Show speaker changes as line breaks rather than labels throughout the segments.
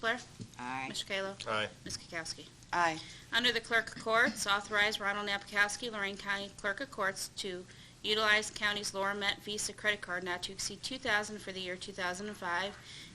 Blair?
Aye.
Mr. Kayla?
Aye.
Ms. Kukowski?
Aye.
Under the Clerk of Courts, authorize Ronald Napakowski, Lorraine County Clerk of Courts, to utilize county's Laura Met Visa credit card not to exceed 2000 for the year 2005.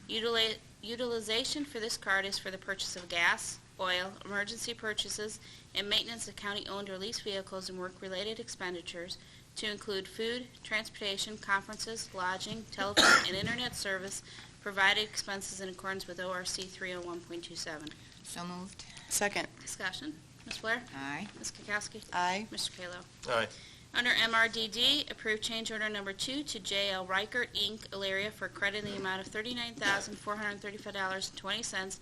Utili- Utilization for this card is for the purchase of gas, oil, emergency purchases, and maintenance of county-owned or leased vehicles and work-related expenditures, to include food, transportation, conferences, lodging, telephone, and internet service, provided expenses in accordance with ORC 301.27.
So moved.
Second.
Discussion. Ms. Blair?
Aye.
Ms. Kukowski?
Aye.
Mr. Kayla?
Aye.
Under MRDD, approve change order number two to J.L. Reichert, Inc., Elaria, for credit in the amount of $39,435.20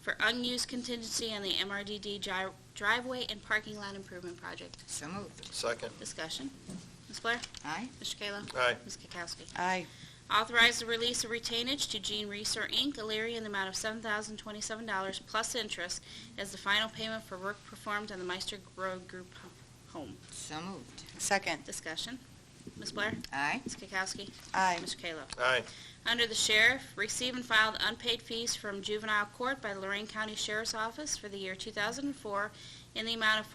for unused contingency on the MRDD dri- driveway and parking lot improvement project.
So moved.
Second.
Discussion. Ms. Blair?
Aye.
Mr. Kayla?
Aye.
Ms. Kukowski?
Aye.
Authorize the release of retainage to Gene Reeser, Inc., Elyria, in the amount of $7,027 plus interest as the final payment for work performed on the Meister Road Group home.
So moved.
Second.
Discussion. Ms. Blair?
Aye.
Ms. Kukowski?
Aye.
Mr. Kayla?
Aye.
Under the Sheriff, receive and file the unpaid fees from juvenile court by Lorraine County Sheriff's Office for the year 2004 in the amount of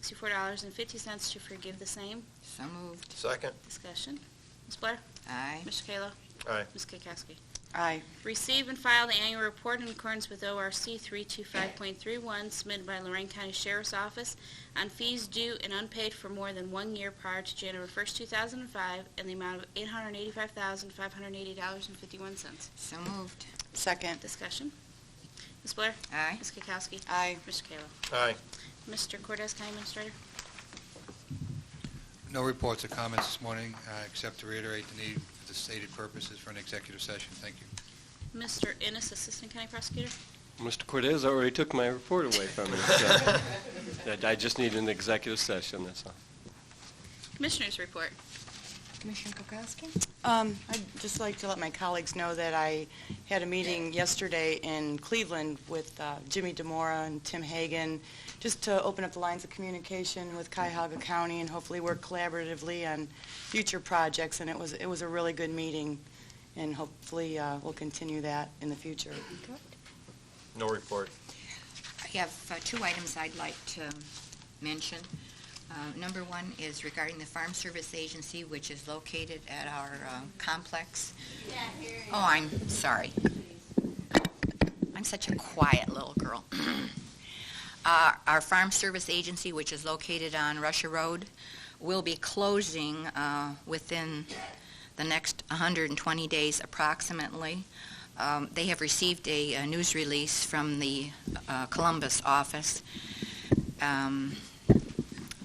$47,564.50 to forgive the same.
So moved.
Second.
Discussion. Ms. Blair?
Aye.
Mr. Kayla?
Aye.
Ms. Kukowski?
Aye.
Receive and file the annual report in accordance with ORC 325.31 submitted by Lorraine County Sheriff's Office on fees due and unpaid for more than one year prior to January 1st, 2005, in the amount of $885,580.51.
So moved.
Second.
Discussion. Ms. Blair?
Aye.
Ms. Kukowski?
Aye.
Mr. Kayla?
Aye.
Mr. Cortez, County Administrator?
No reports or comments this morning, uh, except to reiterate the need for the stated purposes for an executive session. Thank you.
Mr. Ennis, Assistant County Prosecutor?
Mr. Cortez already took my report away from me, so that- I just need an executive session, that's all.
Commissioners report.
Commissioner Kukowski?
Um, I'd just like to let my colleagues know that I had a meeting yesterday in Cleveland with uh, Jimmy Demora and Tim Hagan, just to open up the lines of communication with Cuyahoga County and hopefully work collaboratively on future projects. And it was, it was a really good meeting, and hopefully uh, we'll continue that in the future.
No report.
I have uh, two items I'd like to mention. Uh, Number one is regarding the Farm Service Agency, which is located at our um, complex. Oh, I'm sorry. I'm such a quiet little girl. Uh, Our Farm Service Agency, which is located on Russia Road, will be closing uh, within the next 120 days approximately. Um, They have received a uh, news release from the uh, Columbus office um,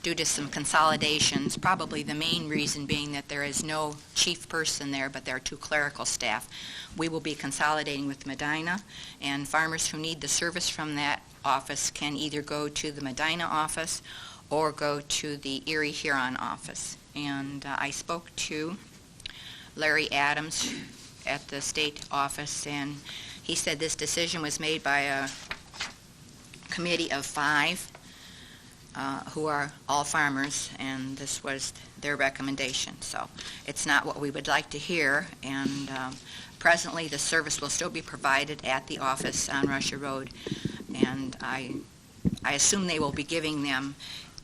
due to some consolidations, probably the main reason being that there is no chief person there, but there are two clerical staff. We will be consolidating with Medina, and farmers who need the service from that office can either go to the Medina office or go to the Erie Huron office. And uh, I spoke to Larry Adams at the state office, and he said this decision was made by a committee of five uh, who are all farmers, and this was their recommendation. So it's not what we would like to hear, and um, presently, the service will still be provided at the office on Russia Road, and I, I assume they will be giving them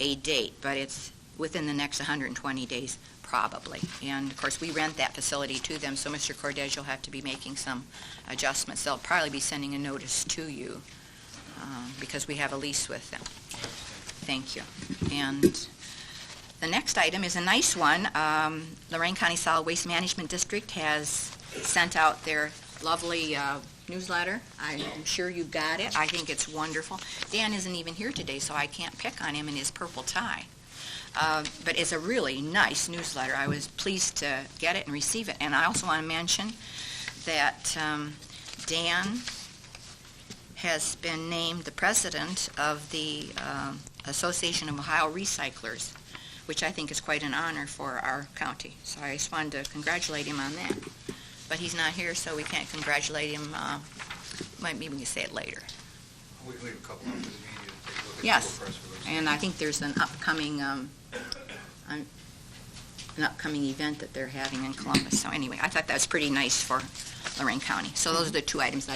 a date, but it's within the next 120 days, probably. And of course, we rent that facility to them, so Mr. Cordez, you'll have to be making some adjustments. They'll probably be sending a notice to you um, because we have a lease with them. Thank you. And the next item is a nice one. Um, Lorraine County Solid Waste Management District has sent out their lovely uh, newsletter. I'm sure you got it. I think it's wonderful. Dan isn't even here today, so I can't pick on him in his purple tie. Uh, But it's a really nice newsletter. I was pleased to get it and receive it. And I also want to mention that um, Dan has been named the president of the um, Association of Ohio Recyclers, which I think is quite an honor for our county. So I just wanted to congratulate him on that. But he's not here, so we can't congratulate him. uh, Might Maybe we can say it later.
We can leave a couple up to the media to take a look at. the
Yes.
full press release.
And I think there's an upcoming, um, um, an upcoming event that they're having in Columbus. So anyway, I thought that was pretty nice for Lorraine County. So those are the two items